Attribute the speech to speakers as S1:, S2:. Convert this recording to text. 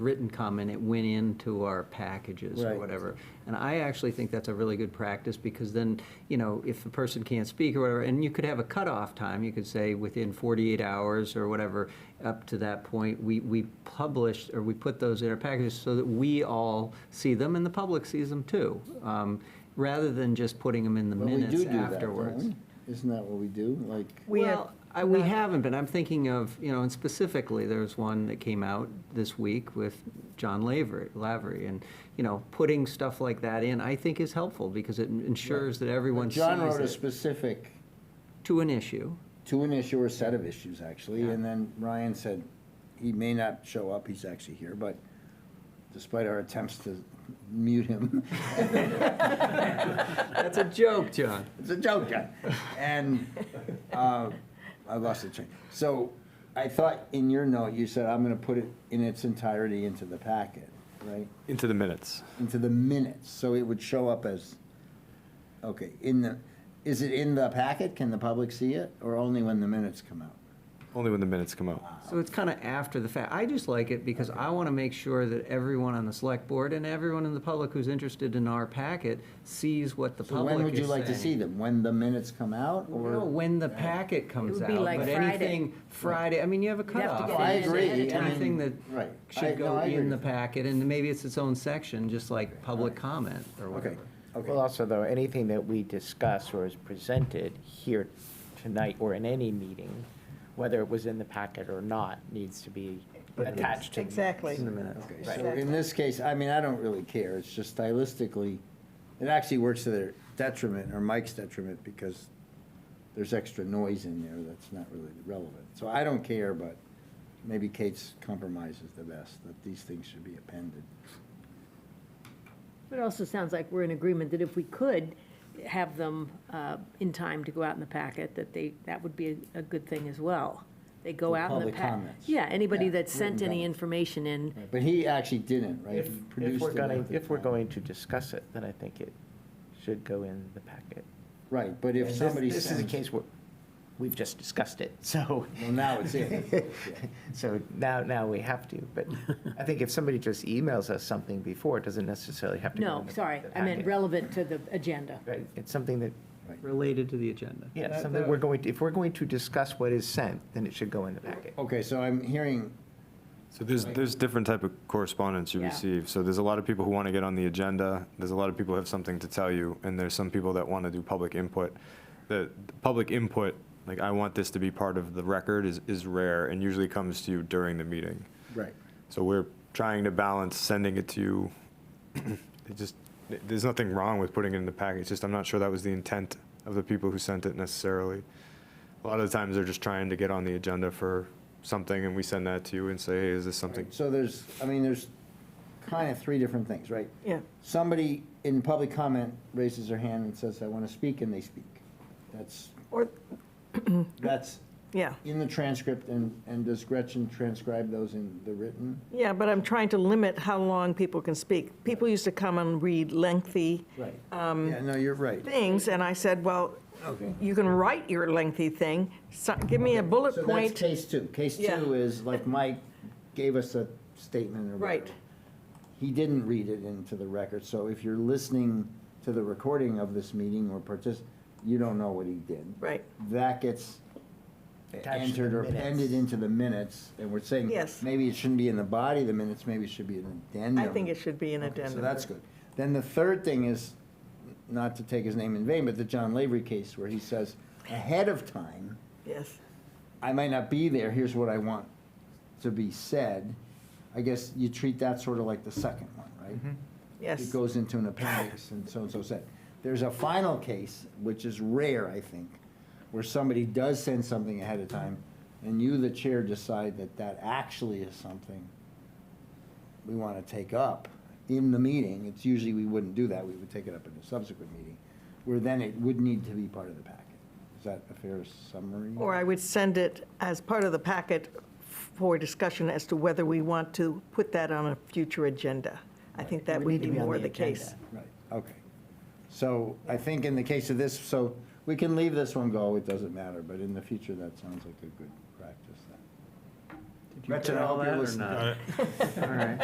S1: written comment, it went into our packages or
S2: Right.
S1: whatever. And I actually think that's a really good practice, because then, you know, if a person can't speak or whatever, and you could have a cutoff time, you could say within 48 hours or whatever, up to that point, we, we publish, or we put those in our packages so that we all see them and the public sees them too, um, rather than just putting them in the
S2: But we
S1: minutes
S2: do do that,
S1: afterwards.
S2: don't we? Isn't that what we do? Like,
S3: We have
S1: Well, I, we
S3: not-
S1: haven't, but I'm thinking of, you know, and specifically, there's one that came out this week with John Lavery, Lavery, and, you know, putting stuff like that in, I think is helpful, because it ensures that everyone sees
S2: John wrote a
S1: it
S2: specific,
S1: to an issue.
S2: to an issue or set of issues, actually,
S1: Yeah.
S2: and then Ryan said, he may not show up, he's actually here, but despite our attempts to mute him,
S1: That's a joke, John.
S2: It's a joke, John. And uh, I lost the train. So I thought in your note, you said, I'm going to put it in its entirety into the packet, right?
S4: Into the minutes.
S2: Into the minutes, so it would show up as, okay, in the, is it in the packet? Can the public see it? Or only when the minutes come out?
S4: Only when the minutes come out.
S1: So it's kind of after the fact. I just like it because I want to make sure that everyone on the select board and everyone in the public who's interested in our packet sees what the
S2: So
S1: public is
S2: when would you like to see
S1: saying.
S2: them? When the minutes come out or?
S1: No, when the packet comes
S3: would
S1: out.
S3: be like
S1: But
S3: Friday.
S1: anything Friday, I mean, you have a
S3: have to
S1: cutoff.
S3: get
S2: No, I
S3: it in
S2: agree.
S3: ahead of
S2: I mean,
S3: time.
S1: Anything that
S2: Right. I-
S1: should
S2: no,
S1: go
S2: I agree
S1: in the
S2: with you.
S1: packet, and maybe it's its own section, just like public comment or
S2: Okay,
S1: whatever.
S2: okay.
S5: Well, also though, anything that we discuss or is presented here tonight or in any meeting, whether it was in the packet or not, needs to be attached to. the minutes.
S3: Exactly.
S1: In a minute.
S2: Okay, so in this case, I mean, I don't really care, it's just stylistically, it actually works to their detriment, or Mike's detriment, because there's extra noise in there that's not really relevant. So I don't care, but maybe Kate's compromise is the best, that these things should be appended.
S3: It also sounds like we're in agreement that if we could have them uh, in time to go out in the packet, that they, that would be a- a good thing as well. They go
S2: For
S3: out in the
S2: public
S3: packet.
S2: comments.
S3: Yeah, anybody
S2: Yeah,
S3: that sent
S2: written
S3: any
S2: comments.
S3: information in,
S2: But he actually didn't, right?
S5: If,
S2: He
S5: if
S2: produced
S5: we're
S2: it
S5: going,
S2: at the
S5: if we're
S2: time.
S5: going to discuss it, then I think it should go in the packet.
S2: Right, but if
S5: And this-
S2: somebody
S5: This is a
S2: sends,
S5: case where we've just discussed it, so.
S2: well, now it's in. Yeah.
S5: So now, now we have to, but I think if somebody just emails us something before, it doesn't necessarily have to go
S3: no,
S5: in the-
S3: sorry,
S5: the
S3: I meant
S5: packet.
S3: relevant to the agenda.
S5: Right, it's something that,
S1: Related to the agenda.
S5: yeah,
S2: That-
S5: something
S2: that-
S5: we're going, to- if we're going to discuss what is sent, then it should go in the packet.
S2: Okay, so I'm hearing,
S4: So there's, there's different type of correspondence you
S3: Yeah.
S4: receive. So there's a lot of people who want to get on the agenda. There's a lot of people who have something to tell you, and there's some people that want to do public input. The, the public input, like I want this to be part of the record, is, is rare and usually comes to you during the meeting.
S2: right,
S4: So we're trying to balance sending it to you. It just, there's nothing wrong with putting it in the package, just I'm not sure that was the intent of the people who sent it necessarily. A lot of the times, they're just trying to get on the agenda for something, and we send that to you and say, hey, is this something?
S2: so there's, I mean, there's kind of three different things, right?
S3: Yeah.
S2: somebody in public comment raises their hand and says, I want to speak, and they speak. That's,
S6: Or,
S2: that's
S6: yeah,
S2: in the transcript, and, and does Gretchen transcribe those in the written?
S6: yeah, but I'm trying to limit how long people can speak. People used to come and read lengthy
S2: Right. Yeah, no, you're right.
S6: things, and I said, well,
S2: Okay.
S6: you can write your lengthy thing, so- give me a bullet
S2: So that's
S6: point.
S2: case two. Case
S6: Yeah.
S2: two is, like, Mike gave us a statement or whatever.
S6: Right.
S2: He didn't read it into the record, so if you're listening to the recording of this meeting or partic, you don't know what he did.
S6: Right.
S2: That gets
S5: Attached to
S2: entered
S5: the
S2: or
S5: minutes.
S2: appended into the minutes, and we're saying.
S6: Yes.
S2: Maybe it shouldn't be in the body of the minutes, maybe it should be an addendum.
S6: I think it should be an
S2: Okay,
S6: addendum.
S2: So that's good. Then the third thing is, not to take his name in vain, but the John Lavery case where he says, ahead of time,
S6: Yes,
S2: I might not be there, here's what I want to be said. I guess you treat that sort of like the second one, right? It
S6: yes.
S2: goes into an appendix and so-and-so said. There's a final case, which is rare, I think, where somebody does send something ahead of time, and you, the chair, decide that that actually is something we want to take up in the meeting. It's usually, we wouldn't do that, we would take it up in a subsequent meeting, where then it would need to be part of the packet. Is that a fair summary?
S6: Or I would send it as part of the packet for discussion as to whether we want to put that on a future agenda. I think that
S5: would
S6: would
S5: need to
S6: be
S5: be on
S6: more
S5: the
S6: the case.
S5: agenda.
S2: Right, okay. So I think in the case of this, so we can leave this one go, it doesn't matter, but in the future, that sounds like a good practice then.
S1: Did you get all that or not? All right.